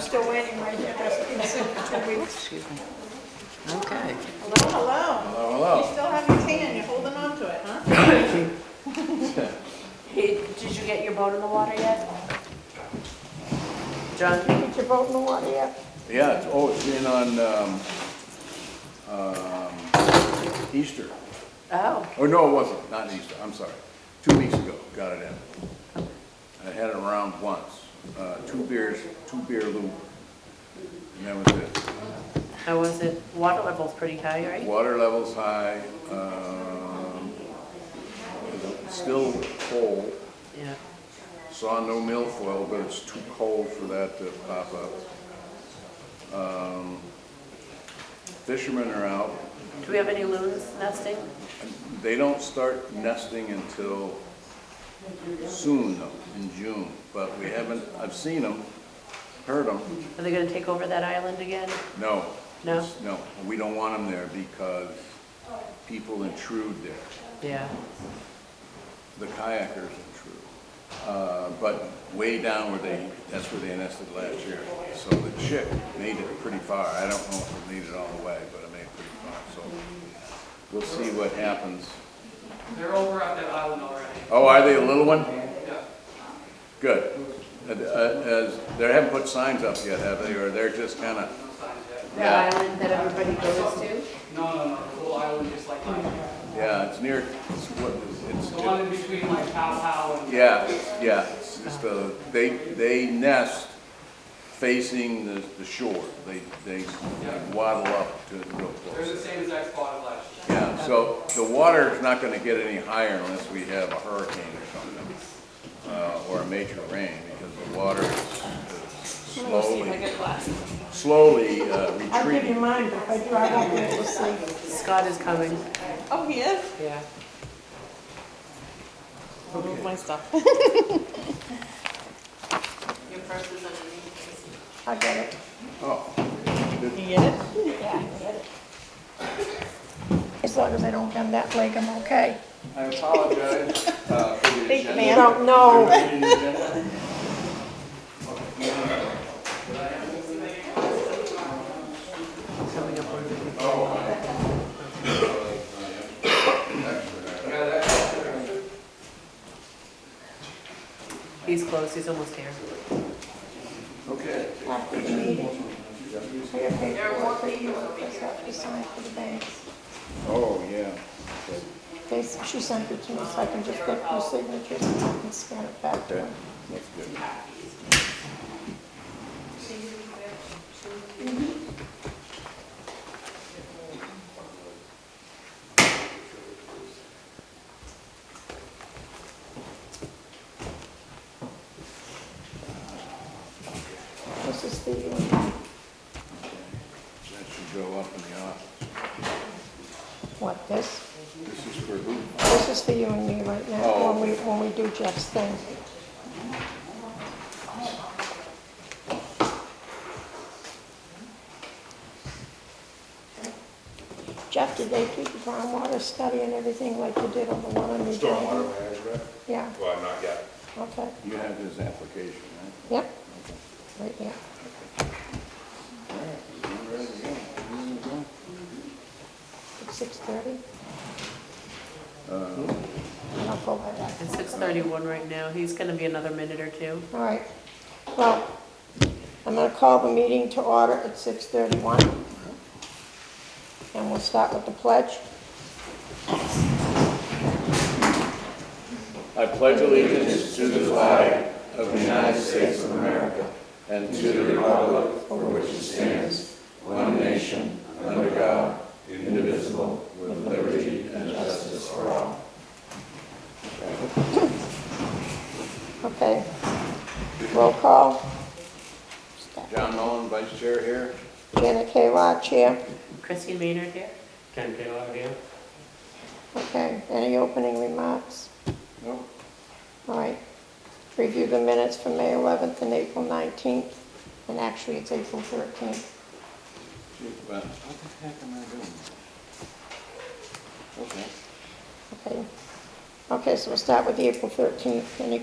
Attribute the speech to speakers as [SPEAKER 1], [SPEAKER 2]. [SPEAKER 1] still waiting, right, that's been sick for two weeks.
[SPEAKER 2] Excuse me. Okay.
[SPEAKER 1] Hello, hello.
[SPEAKER 3] Hello,
[SPEAKER 1] You
[SPEAKER 3] hello.
[SPEAKER 1] still have your tan, you're holding on to it, huh?
[SPEAKER 4] Hey, Did you get your boat in the water yet?
[SPEAKER 2] John, you get your vote in the water yet?
[SPEAKER 3] Yeah, it's, oh, it's been on, um, um, Easter.
[SPEAKER 2] Oh,
[SPEAKER 3] Oh, no, it wasn't, not Easter, I'm sorry. Two weeks ago, got it in. I had it around once, uh, two beers, two beer loop. And that was it.
[SPEAKER 2] how was it? Water level's pretty high, right?
[SPEAKER 3] Water level's high, um, still cold,
[SPEAKER 2] Yeah.
[SPEAKER 3] saw no milfoil, but it's too cold for that to pop up. Um, Fishermen are out,
[SPEAKER 2] Do we have any loons nesting?
[SPEAKER 3] They don't start nesting until soon, though, in June, but we haven't, I've seen them, heard them,
[SPEAKER 2] Are they gonna take over that island again?
[SPEAKER 3] no.
[SPEAKER 2] No?
[SPEAKER 3] No, we don't want them there because people intrude there,
[SPEAKER 2] Yeah.
[SPEAKER 3] the kayakers intrude. Uh, But way down where they, that's where they nested last year, so the chick made it pretty far, I don't know if it made it all the way, but it made it pretty far, so we'll see what happens.
[SPEAKER 5] They're over on that island already.
[SPEAKER 3] Oh, are they a little one?
[SPEAKER 5] Yeah.
[SPEAKER 3] Good. And, uh, As, they haven't put signs up yet, have they, or they're just kind of,
[SPEAKER 5] No signs yet.
[SPEAKER 3] yeah,
[SPEAKER 4] That island that everybody goes to?
[SPEAKER 5] No, no, no, the whole island just like mine.
[SPEAKER 3] yeah, it's near, it's what, it's,
[SPEAKER 5] The one in between like Pow Pow and.
[SPEAKER 3] yeah, it's- yeah, it's just a, they, they nest facing the, the shore. They, they waddle up to real
[SPEAKER 5] They're the
[SPEAKER 3] close.
[SPEAKER 5] same exact spot as last year.
[SPEAKER 3] Yeah, so the water's not gonna get any higher unless we have a hurricane or something, uh, or a major rain, because the water is slowly, slowly uh,
[SPEAKER 1] I'll give you
[SPEAKER 3] retreating.
[SPEAKER 1] mine, but if I do, I won't be able to see.
[SPEAKER 2] Scott is coming.
[SPEAKER 1] Oh, he is?
[SPEAKER 2] Yeah.
[SPEAKER 6] Move my stuff.
[SPEAKER 4] Your purse is underneath.
[SPEAKER 1] I got it.
[SPEAKER 3] Oh.
[SPEAKER 6] You get it?
[SPEAKER 1] Yeah, I get it. As long as I don't come that lake, I'm okay.
[SPEAKER 3] I apologize uh, for the
[SPEAKER 6] Big
[SPEAKER 3] agenda.
[SPEAKER 6] man.
[SPEAKER 1] Don't know.
[SPEAKER 2] Coming up on the- He's close, he's almost here.
[SPEAKER 3] Okay.
[SPEAKER 1] After the meeting. I got paperwork for you, that's have to sign for the banks.
[SPEAKER 3] Oh, yeah.
[SPEAKER 1] They, she sent it to me, so I can just get your signature and scan it back
[SPEAKER 3] Okay,
[SPEAKER 1] to them.
[SPEAKER 3] that's good.
[SPEAKER 1] Mm-hmm. This is the, uh,
[SPEAKER 3] That should go up in the office.
[SPEAKER 1] what, this?
[SPEAKER 3] This is for who?
[SPEAKER 1] This is for you and me right now,
[SPEAKER 3] Oh.
[SPEAKER 1] when we, when we do Jeff's thing. Jeff, did they do the groundwater study and everything like you did on the one on the...
[SPEAKER 7] Stormwater management?
[SPEAKER 1] Yeah,
[SPEAKER 7] Well, not yet.
[SPEAKER 1] okay,
[SPEAKER 3] You have his application,
[SPEAKER 1] yep, right here. It's 6:30? And I'll go by that.
[SPEAKER 2] It's six thirty-one right now, he's gonna be another minute or two.
[SPEAKER 1] All right, well, I'm gonna call the meeting to order at six thirty-one. And we'll start with the pledge.
[SPEAKER 3] right? I pledge allegiance to the flag of the United States of America and to the republic for which it stands, one nation, under God, indivisible, with liberty and justice for all.
[SPEAKER 1] Okay. Roll call.
[SPEAKER 3] John Mullen, Vice Chair here.
[SPEAKER 1] Janet Kayla, chair.
[SPEAKER 2] Christine Maynard here?
[SPEAKER 5] Ken Taylor here.
[SPEAKER 1] Okay, any opening remarks?
[SPEAKER 3] No.
[SPEAKER 1] All right. Review the minutes from May eleventh and April nineteenth, and actually it's April thirteenth.
[SPEAKER 3] What the heck am I doing? Okay.
[SPEAKER 1] Okay. Okay, so we'll start with the April thirteenth. Any